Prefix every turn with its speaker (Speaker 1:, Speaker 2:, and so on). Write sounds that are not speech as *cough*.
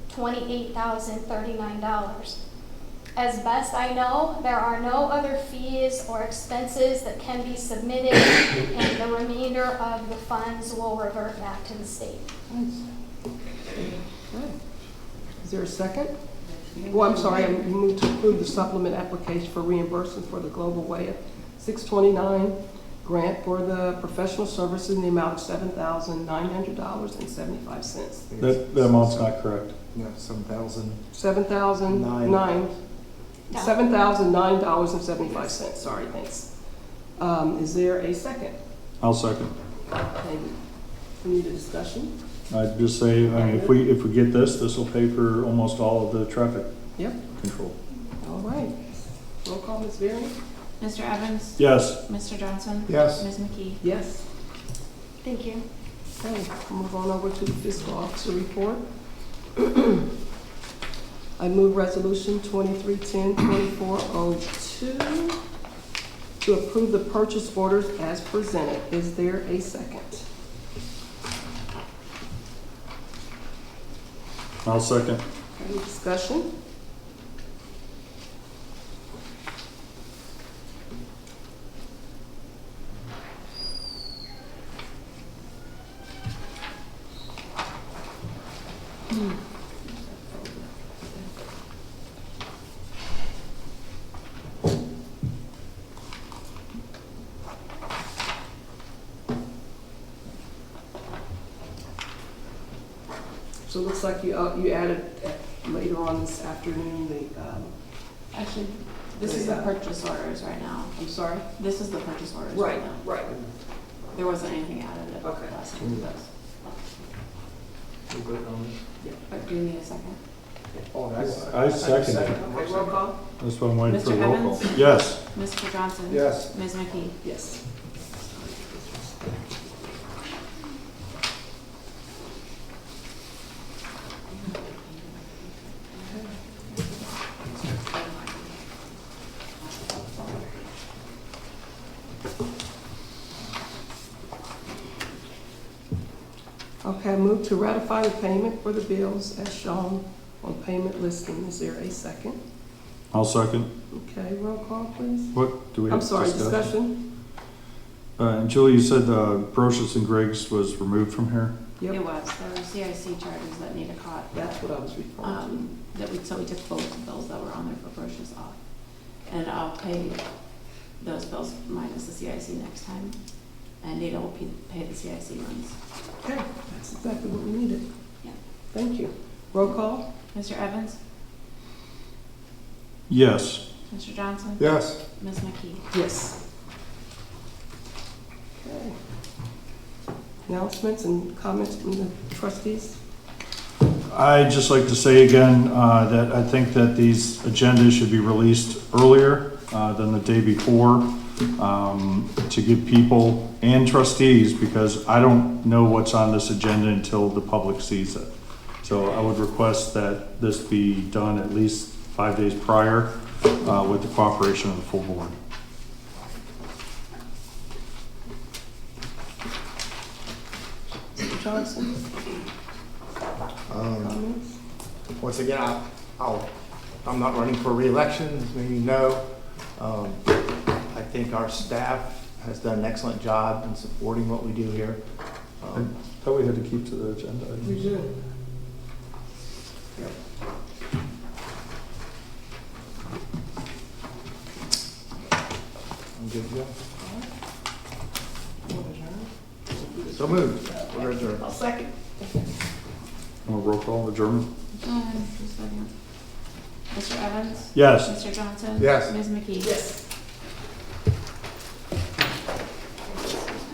Speaker 1: twenty-eight thousand thirty-nine dollars. As best I know, there are no other fees or expenses that can be submitted, and the remainder of the funds will revert back to the state.
Speaker 2: Nice. Okay. Is there a second? Well, I'm sorry, I moved to approve the supplement application for reimbursement for the Global Way of 629 grant for the professional services in the amount of $7,900.75.
Speaker 3: That, that amount's not correct.
Speaker 4: No, seven thousand.
Speaker 2: $7,009,
Speaker 1: Dollars.
Speaker 2: $7,009.75, sorry, thanks. Um, Is there a second?
Speaker 3: I'll second.
Speaker 2: Maybe. We need a discussion?
Speaker 3: I'd just say, I mean, if we, if we get this, this will pay for almost all of the traffic
Speaker 2: Yep,
Speaker 3: control.
Speaker 2: all right. Roll call, Ms. Varyn?
Speaker 5: Mr. Evans?
Speaker 3: Yes,
Speaker 5: Mr. Johnson?
Speaker 4: Yes.
Speaker 5: Ms. McKee?
Speaker 2: Yes.
Speaker 1: Thank you.
Speaker 2: Okay, move on over to the fiscal officer report. *clears throat* I move resolution 2310-2402 to approve the purchase orders as presented. Is there a second?
Speaker 3: I'll second.
Speaker 2: Any discussion? So it looks like you, uh, you added uh, later on this afternoon, the, um,
Speaker 5: Actually, this is the purchase orders right now.
Speaker 2: I'm sorry?
Speaker 5: This is the purchase orders right now.
Speaker 2: right.
Speaker 5: There wasn't anything added at
Speaker 2: Okay.
Speaker 5: last time. But do you need a second?
Speaker 4: Oh,
Speaker 3: I second it.
Speaker 2: Okay, roll call?
Speaker 3: That's why I'm waiting for
Speaker 5: Mr.
Speaker 3: the roll call.
Speaker 5: Evans?
Speaker 3: Yes,
Speaker 5: Mr. Johnson?
Speaker 4: Yes.
Speaker 5: Ms. McKee?
Speaker 2: Yes. Okay, I move to ratify the payment for the bills as shown on payment listing. Is there a second?
Speaker 3: I'll second.
Speaker 2: Okay, roll call, please.
Speaker 3: What, do we have
Speaker 2: I'm sorry,
Speaker 3: discussion?
Speaker 2: discussion?
Speaker 3: Uh, and Julie, you said, uh, Brochus and Griggs was removed from here?
Speaker 5: It
Speaker 2: Yep,
Speaker 5: was, there were CIC charges that Nita caught,
Speaker 2: that's what I was referring to.
Speaker 5: um, that we, so we took both of those that were on there for purchase off. And I'll pay those bills minus the CIC next time, and Nita will pe- pay the CIC ones.
Speaker 2: Okay, that's exactly what we needed.
Speaker 5: Yeah.
Speaker 2: Thank you. Roll call?
Speaker 5: Mr. Evans?
Speaker 3: Yes,
Speaker 5: Mr. Johnson?
Speaker 4: Yes.
Speaker 5: Ms. McKee?
Speaker 2: Yes. Okay. Announcements and comments from the trustees?
Speaker 3: I'd just like to say again uh, that I think that these agendas should be released earlier uh, than the day before um, to give people and trustees, because I don't know what's on this agenda until the public sees it. So I would request that this be done at least five days prior uh, with the cooperation of the full board.
Speaker 2: Mr. Johnson,
Speaker 4: Um,
Speaker 2: comments?
Speaker 4: once again, I, I'll, I'm not running for reelection, as many of you know. Um, I think our staff has done an excellent job in supporting what we do here. Um,
Speaker 3: Thought we had to keep to the agenda.
Speaker 2: We do.
Speaker 4: I'm good to go. So moved. We're adjourned.
Speaker 2: I'll second.
Speaker 3: Want to Oh, roll call, adjournment?
Speaker 5: Mr. Evans?
Speaker 3: Yes.
Speaker 5: Mr. Johnson?
Speaker 4: Yes.
Speaker 5: Ms. McKee?
Speaker 2: Yes.